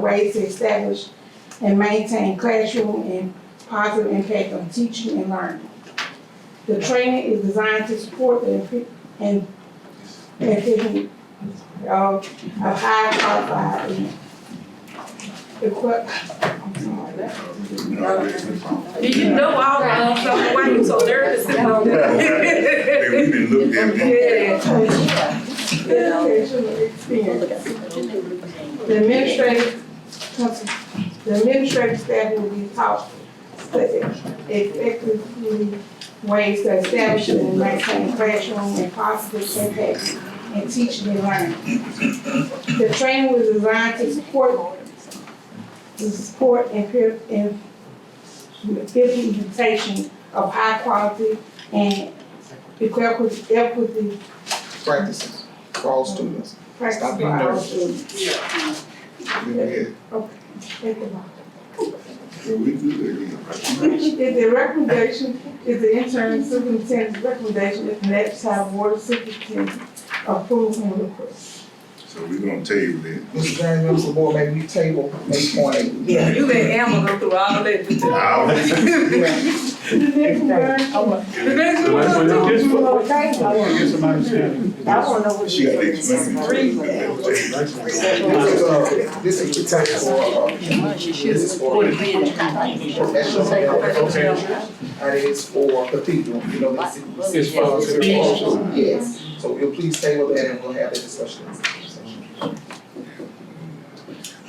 ways to establish and maintain classroom and positive impact on teaching and learning. The training is designed to support the imp- and and picking of of high qualified uh, and equip- I'm sorry, that- Do you know all of them? So why you so nervous about that? Hey, we've been looked at. Yeah. Educational experience. The administrative, the administrative staff will be taught the effectively ways to establish and maintain classroom and positive impact in teaching and learning. The training was designed to support, to support and pir- and implementation of high quality and equitable, equity practices for all students. practice Stop for being our nervous. students. Yeah, Think about it. so we good again. If the recommendation, if the interim superintendent's recommendation is met, shall the board of superintendent approve and request. So we gonna table it. Mr. James, members of the board, maybe we table eight point eight. Yeah, you let Amber go through all that. I'll make it. Yeah. The next version, The next So one, that's what it too. is I for. wanna Get some understanding. know what She you got did. the explanatory. This is, uh, this is protected for, uh, this is for, professional development, Okay, and it is for cathedral, you know, it's. it's for the people. Yes, so we'll please table that and we'll have that discussion. in executive session.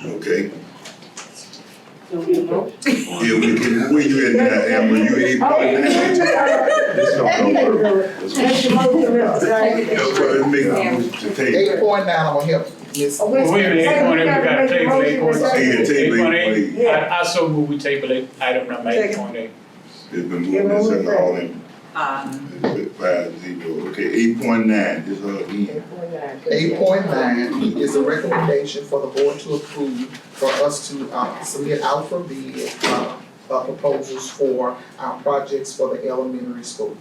Okay, yeah, we can, where you at now, Amber, you ain't part of that? This don't go work. This one- That's what it makes to table. Eight point nine, I'm gonna help Ms. Well, Wait a minute, eight point eight, we gotta table eight point eight. Yeah, Eight table point it, eight, please. I, I so move we table eight, item number eight point eight. It's been moved and seconded, all in, Um, five zero, okay, eight point nine, this her end. Eight point nine is a recommendation for the board to approve for us to uh, submit out for bid uh, uh, proposals for our projects for the elementary schools.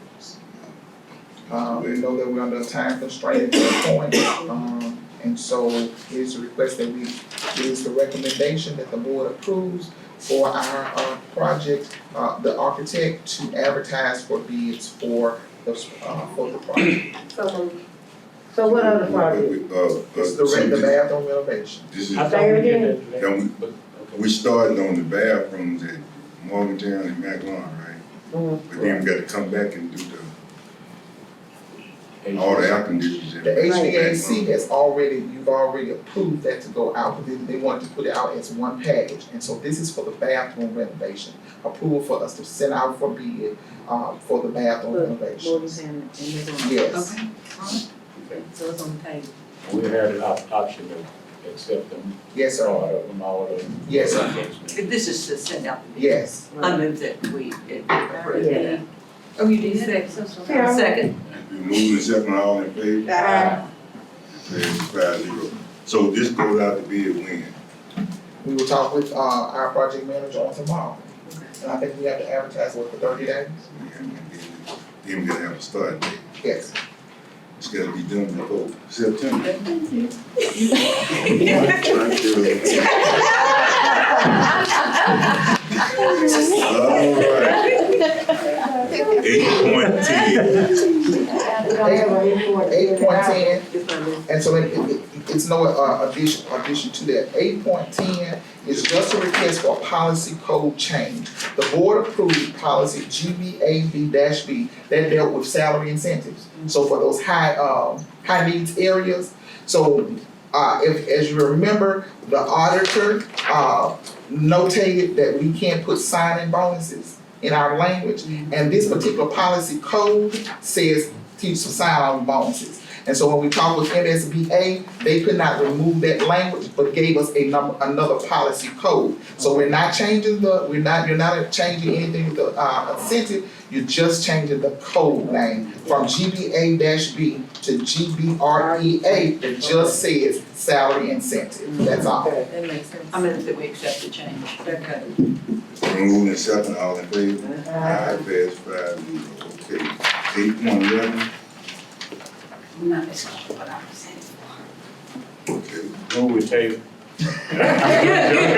Uh, we know that we're under a time constraint at this point, um, and so here's a request that we, here's the recommendation that the board approves for our uh, project, uh, the architect to advertise for bids for the, uh, for the project. So what other project? Uh, uh, It's the re- the so bathroom renovation. This this I is, thought we did that. today. and But- we, we started on the bathrooms at Morgantown and McLaurin, right? Mhm. But then we gotta come back and do the, okay. all the air conditioners. and- The HVAC has already, you've already approved that to go out, but then they wanted to put it out as one package. And so this is for the bathroom renovation, approval for us to send out for bid, uh, for the bathroom renovation. Yes. okay. So it's on the table. We had an op- option to accept them, Yes, sir. all of them, all of them. Yes, sir. sir. This is to send out, Yes. I move that we approve Yeah. that. Oh, you did that? Yeah. Second, Moving and second, all in favor? Uh-huh. Passes five zero. So this goes out to bid when? We will talk with, uh, our project manager on tomorrow. And I think we have to advertise, what, for thirty days? And then- Then we gotta have a start date. Yes. It's gotta be done before September. Alright. Eight point ten. Eight point ten, it's my move. Mm-hmm. And so it, it, it- it's no uh, addition, addition to that. Eight point ten is just a request for a policy code change. The board approved policy GBAB B that dealt with salary incentives. So for those high, um, high needs areas. So, uh, if, as you remember, the auditor, uh, notated that we can't put signing bonuses in our language. And this particular policy code says teach some sign-on bonuses. And so when we talked with MSBA, they could not remove that language, but gave us a number, another policy code. So we're not changing the, we're not, you're not changing anything with the, uh, incentive, you're just changing the code name from GBA B to GBREA, that just says salary incentive, that's all. That makes sense. I move that we accept the change. Okay. Moving and second, all in favor? Alright, passes five zero. Okay. Eight point eleven. No, it's not what I'm saying. Okay. Move we table, Good.